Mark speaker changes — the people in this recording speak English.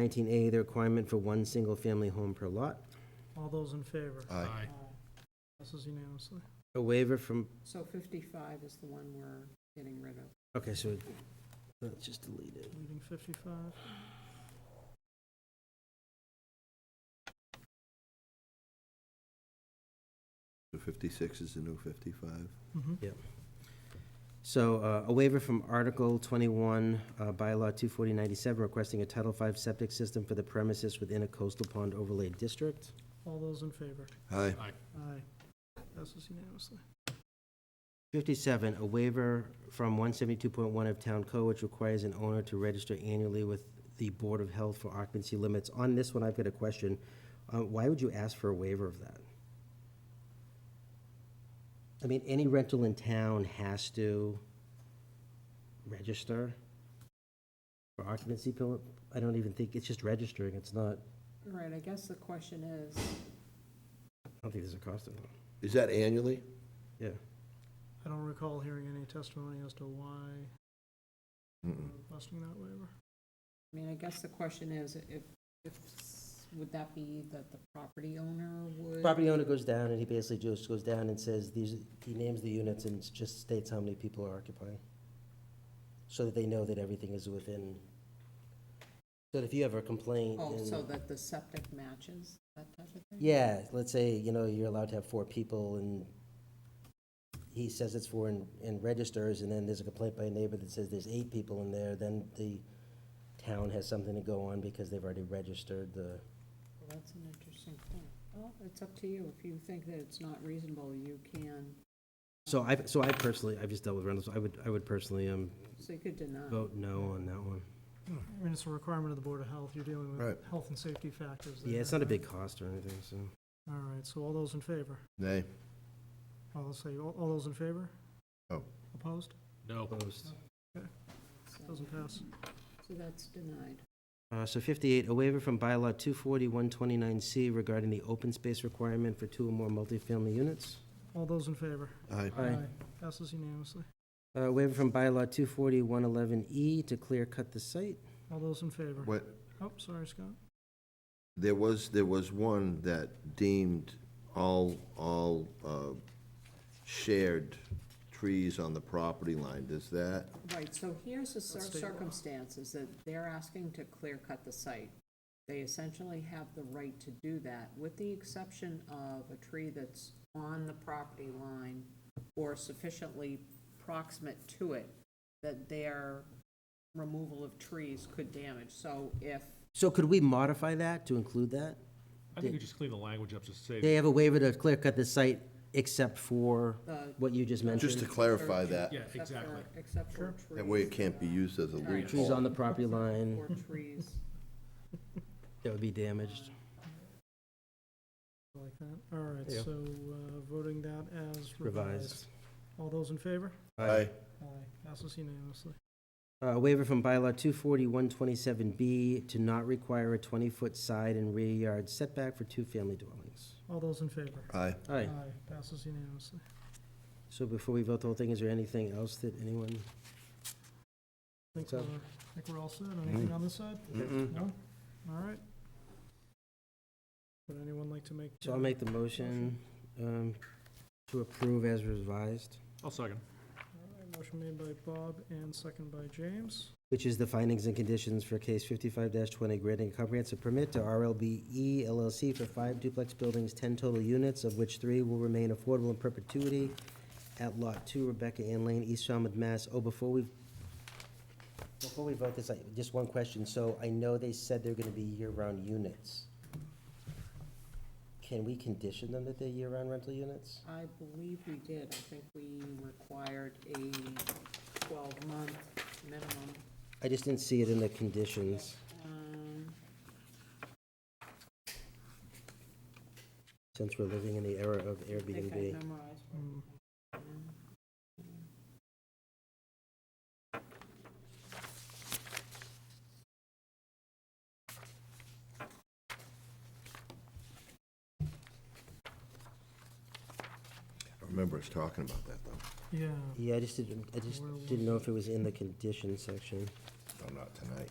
Speaker 1: 19A, the requirement for one single-family home per lot.
Speaker 2: All those in favor?
Speaker 3: Aye.
Speaker 2: Passes unanimously.
Speaker 1: A waiver from,
Speaker 4: So 55 is the one we're getting rid of.
Speaker 1: okay, so let's just delete it.
Speaker 2: Leaving 55.
Speaker 3: The 56 is the new 55.
Speaker 5: Mm-hmm.
Speaker 2: Mhm.
Speaker 1: So uh, a waiver from Article 21, uh, bylaw 24097, requesting a Title V septic system for the premises within a coastal pond overlay district.
Speaker 2: All those in favor?
Speaker 3: Aye.
Speaker 2: Aye. Passes unanimously.
Speaker 1: 57, a waiver from 172.1 of Town Code, which requires an owner to register annually with the Board of Health for occupancy limits. On this one, I've got a question. Uh, Why would you ask for a waiver of that? I mean, any rental in town has to register for occupancy permit? I don't even think, it's just registering, it's not, I
Speaker 4: All right, I guess the question is,
Speaker 1: don't think there's a cost involved.
Speaker 3: Is that annually?
Speaker 1: Yeah,
Speaker 2: I don't recall hearing any testimony as to why we're requesting that waiver.
Speaker 4: I mean, I guess the question is, if, if, would that be that the property owner would?
Speaker 1: property owner goes down and he basically just goes down and says, these, he names the units and just states how many people are occupying. So that they know that everything is within, so that if you have a complaint
Speaker 4: Oh, so
Speaker 1: and,
Speaker 4: that the septic matches, that type of thing?
Speaker 1: yeah, let's say, you know, you're allowed to have four people and he says it's four and, and registers, and then there's a complaint by a neighbor that says there's eight people in there, then the town has something to go on because they've already registered the,
Speaker 4: Well, That's an interesting point. Well, it's up to you. If you think that it's not reasonable, you can,
Speaker 1: so I, so I personally, I've just dealt with rentals, I would, I would personally, um,
Speaker 4: so you could deny.
Speaker 1: Vote no on that one.
Speaker 5: Hmm.
Speaker 2: I mean, it's a requirement of the Board of Health. You're dealing with
Speaker 3: Right.
Speaker 2: health and safety factors.
Speaker 1: Yeah,
Speaker 2: there,
Speaker 1: it's not a
Speaker 2: right?
Speaker 1: big cost or anything, so.
Speaker 2: All right, so all those in favor?
Speaker 3: Nay.
Speaker 2: All, let's say, all all those in favor?
Speaker 3: Oh.
Speaker 2: Opposed?
Speaker 5: No.
Speaker 1: Opposed.
Speaker 4: so-
Speaker 2: Doesn't pass.
Speaker 4: So that's denied.
Speaker 1: Uh, so fifty-eight, a waiver from bylaw two forty, one twenty-nine C regarding the open space requirement for two or more multifamily units.
Speaker 2: All those in favor?
Speaker 3: Aye.
Speaker 1: Aye.
Speaker 2: Passes unanimously.
Speaker 1: Uh, waiver from bylaw two forty, one eleven E to clear cut the site.
Speaker 2: All those in favor?
Speaker 3: What,
Speaker 2: Oh, sorry, Scott.
Speaker 3: there was, there was one that deemed all, all uh, shared trees on the property line. Does that,
Speaker 4: Right, so here's the cir-
Speaker 2: That's state law.
Speaker 4: circumstances, that they're asking to clear cut the site. They essentially have the right to do that, with the exception of a tree that's on the property line or sufficiently proximate to it, that their removal of trees could damage. So if,
Speaker 1: So could we modify that to include that?
Speaker 5: I think you just clean the language up to
Speaker 1: They
Speaker 5: say,
Speaker 1: have a waiver to clear cut the site except for
Speaker 4: The-
Speaker 1: what you just mentioned.
Speaker 3: just to clarify that,
Speaker 5: yeah,
Speaker 4: except
Speaker 5: exactly.
Speaker 4: for, except for trees.
Speaker 3: that way it can't be
Speaker 4: uh,
Speaker 3: used as a
Speaker 4: Right.
Speaker 1: Trees on
Speaker 3: loophole.
Speaker 1: the property line
Speaker 4: Or trees.
Speaker 1: that would be damaged.
Speaker 2: I Like that. All right,
Speaker 1: Yeah.
Speaker 2: so uh, voting that as revised.
Speaker 1: Revised.
Speaker 2: All those in favor? Aye.
Speaker 3: Aye.
Speaker 2: Passes unanimously.
Speaker 1: Uh, waiver from bylaw two forty, one twenty-seven B to not require a twenty-foot side and rear yard setback for two-family dwellings.
Speaker 2: All those in favor?
Speaker 3: Aye.
Speaker 1: Aye.
Speaker 2: Passes unanimously.
Speaker 1: So before we vote the whole thing, is there anything else that anyone?
Speaker 2: I think
Speaker 1: So-
Speaker 2: we're, I think we're all set.
Speaker 1: Mm-hmm.
Speaker 2: Anything on this side?
Speaker 3: Mm-mm.
Speaker 2: No? All right. Would anyone like to make?
Speaker 1: So I'll make the motion, um, to approve as revised,
Speaker 5: I'll second.
Speaker 2: All right, Motion made by Bob and second by James.
Speaker 1: which is the findings and conditions for case fifty-five twenty, granting a comprehensive permit to RLBE LLC for five duplex buildings, ten total units, of which three will remain affordable in perpetuity at Lot Two, Rebecca Ann Lane, East Falmouth, Mass. Oh, before we, before we vote this, I, just one question. So I know they said they're gonna be year-round units. Can we condition them that they're year-round rental units?
Speaker 4: I believe we did. I think we required a twelve-month minimum.
Speaker 1: I just didn't see it in the conditions.
Speaker 4: Um,
Speaker 1: since we're living in the era of
Speaker 4: I think I
Speaker 1: Airbnb.
Speaker 4: memorized. what
Speaker 2: Mm,
Speaker 4: it was.
Speaker 3: I remember us talking about that, though.
Speaker 2: Yeah,
Speaker 1: Yeah, I just didn't, I just
Speaker 2: Where was
Speaker 1: didn't know if it was in the condition section.
Speaker 3: No, not tonight.